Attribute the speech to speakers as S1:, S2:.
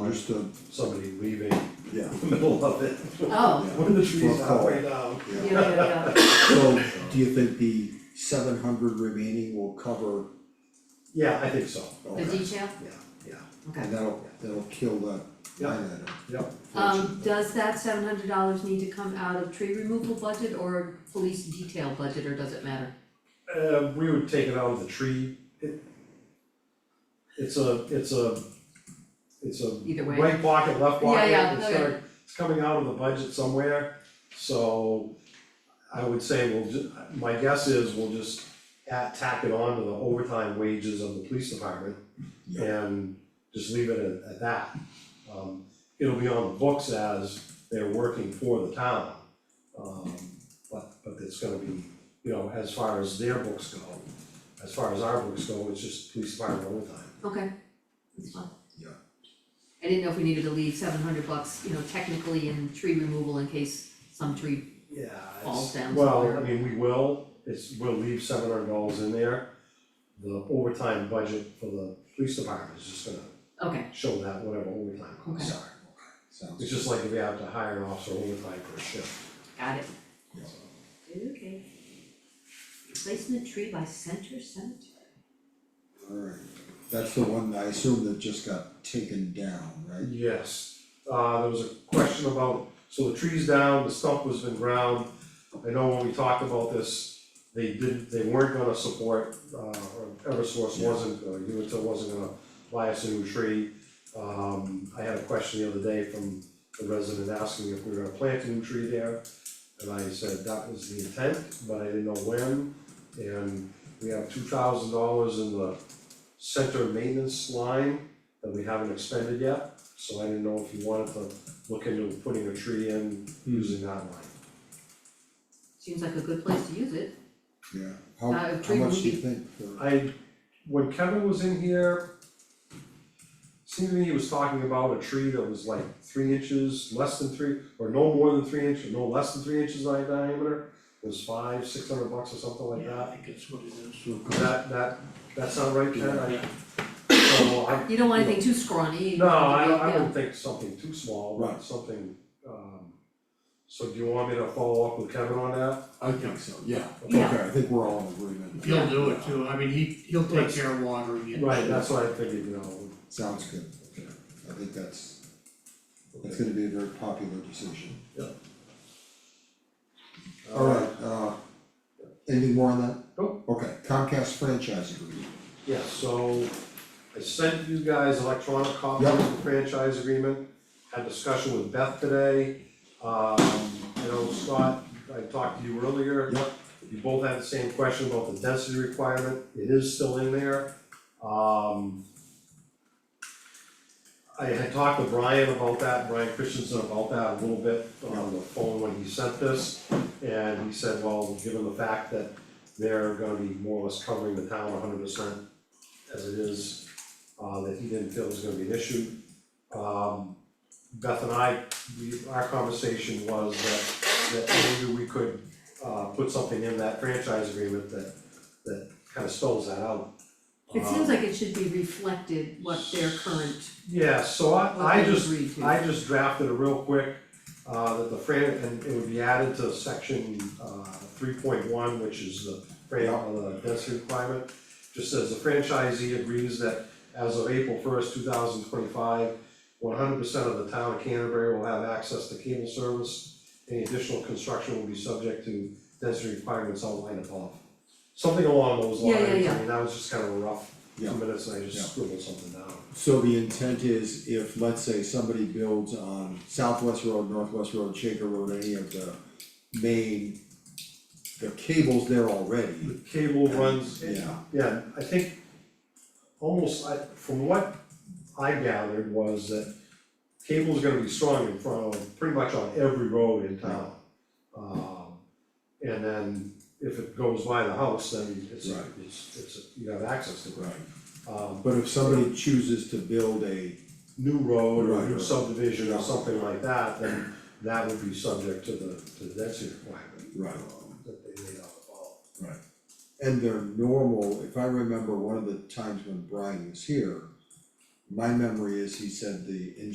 S1: understood,
S2: somebody leaving in
S1: yeah,
S2: the middle of it,
S3: Oh,
S2: when the tree's
S1: Well,
S2: halfway down.
S3: yeah,
S1: yeah.
S3: yeah, yeah.
S1: So, do you think the seven hundred remaining will cover,
S2: Yeah, I think so,
S3: the
S1: okay,
S3: detail,
S2: yeah, yeah,
S3: okay.
S1: and that'll, that'll kill that line item.
S2: Yep.
S3: Um, does that seven hundred dollars need to come out of tree removal budget or police detail budget, or does it matter?
S2: Uh, we would take it out of the tree, it. It's a, it's a, it's a
S3: Either way.
S2: right pocket, left
S3: Yeah,
S2: pocket,
S3: yeah,
S2: it's
S3: okay.
S2: start, it's coming out of the budget somewhere, so. I would say we'll ju- my guess is we'll just at, tack it on to the overtime wages of the police department.
S1: Yeah.
S2: And just leave it at, at that. Um, it'll be on the books as they're working for the town. Um, but, but it's gonna be, you know, as far as their books go, as far as our books go, it's just police department overtime.
S3: Okay, that's fine.
S1: Yeah.
S3: I didn't know if we needed to leave seven hundred bucks, you know, technically in tree removal in case some tree,
S2: Yeah,
S3: Falls
S2: it's,
S3: down
S2: well,
S3: somewhere.
S2: I mean, we will, it's, we'll leave seven hundred dollars in there. The overtime budget for the police department is just gonna
S3: okay,
S2: show that whatever overtime costs are.
S1: Sounds,
S2: It's just like if we have to hire an officer overtime for a shift,
S3: got it.
S1: Yeah.
S3: Okay. Replacement tree by center cemetery.
S1: alright, that's the one, I assume that just got taken down, right?
S2: Yes, uh, there was a question about, so the tree's down, the stump was been ground. I know when we talked about this, they didn't, they weren't gonna support, uh, or Eversource
S1: Yeah.
S2: wasn't, or Unitil wasn't gonna buy us a new tree. Um, I had a question the other day from a resident asking if we were gonna plant a new tree there. And I said that was the intent, but I didn't know when. And we have two thousand dollars in the center maintenance line that we haven't expended yet. So I didn't know if you wanted to look into putting a tree in
S1: Hmm.
S2: using that line.
S3: Seems like a good place to use it.
S1: Yeah, how,
S3: Uh,
S1: how much do
S3: tree
S1: you
S3: movie.
S1: think for,
S2: I, when Kevin was in here, seemed to me he was talking about a tree that was like three inches, less than three, or no more than three inches, no less than three inches in diameter. It was five, six hundred bucks or something like
S4: Yeah, I
S2: that.
S4: think that's what it is.
S2: That, that, that sound right, Ken? I-
S4: Yeah.
S2: So I,
S3: You don't want anything too scrawny.
S2: no, I don't, I
S3: Yeah.
S2: wouldn't think something too small,
S1: Right.
S2: but something, um, so do you want me to follow up with Kevin on that?
S1: I think so, yeah, okay,
S3: Yeah.
S1: I think we're all in agreement,
S4: He'll do it too, I mean, he, he'll take care of watering it.
S2: Right, that's what I figured, you know.
S1: sounds good, I think that's, that's gonna be a very popular decision. Alright, uh, anything more on that?
S2: Nope.
S1: Okay, Comcast franchise agreement,
S2: Yeah, so I sent you guys electronic copies
S1: Yeah.
S2: of the franchise agreement, had discussion with Beth today. Um, you know, Scott, I talked to you earlier.
S1: Yep.
S2: You both had the same question about the density requirement, it is still in there. Um. I had talked to Brian about that, Brian Christensen about that a little bit on the phone when he sent this. And he said, well, given the fact that they're gonna be more or less covering the town hundred percent as it is, uh, that he didn't feel was gonna be an issue. Um, Beth and I, we, our conversation was that, that maybe we could, uh, put something in that franchise agreement that, that kind of spells that out.
S3: It seems
S2: Um,
S3: like it should be reflected what their current,
S2: Yeah, so I, I
S3: what they
S2: just
S3: agreed to.
S2: I just drafted it real quick, uh, that the Fran, and it would be added to section, uh, three point one, which is the Fran, uh, the density requirement. Just says the franchisee agrees that as of April first, two thousand twenty-five, one hundred percent of the town of Canterbury will have access to cable service. Any additional construction will be subject to density requirements outlined above. Something along those
S3: Yeah,
S2: lines,
S3: yeah,
S2: I
S3: yeah.
S2: mean, that was just kind of a rough
S1: Yeah.
S2: two minutes, and I
S1: Yeah.
S2: just scribbled something down.
S1: so the intent is if, let's say, somebody builds on Southwest Road, Northwest Road, Shaker Road, any of the main, the cable's there already,
S2: The cable runs,
S1: Mm-hmm. yeah,
S2: Yeah, I think almost, I, from what I gathered was that cable's gonna be strong in front of, pretty much on every road in town. Um, and then if it goes by the house, then it's,
S1: Right.
S2: it's, it's, you have access to it.
S1: right.
S2: Um,
S1: But if somebody chooses to build a,
S2: new road or
S1: Right,
S2: new
S1: right.
S2: subdivision or something like that, then that would be subject to the, to the density requirement.
S1: Right.
S2: um, That they laid out above.
S1: and their normal, if I remember one of the times when Brian was here, my memory is he said the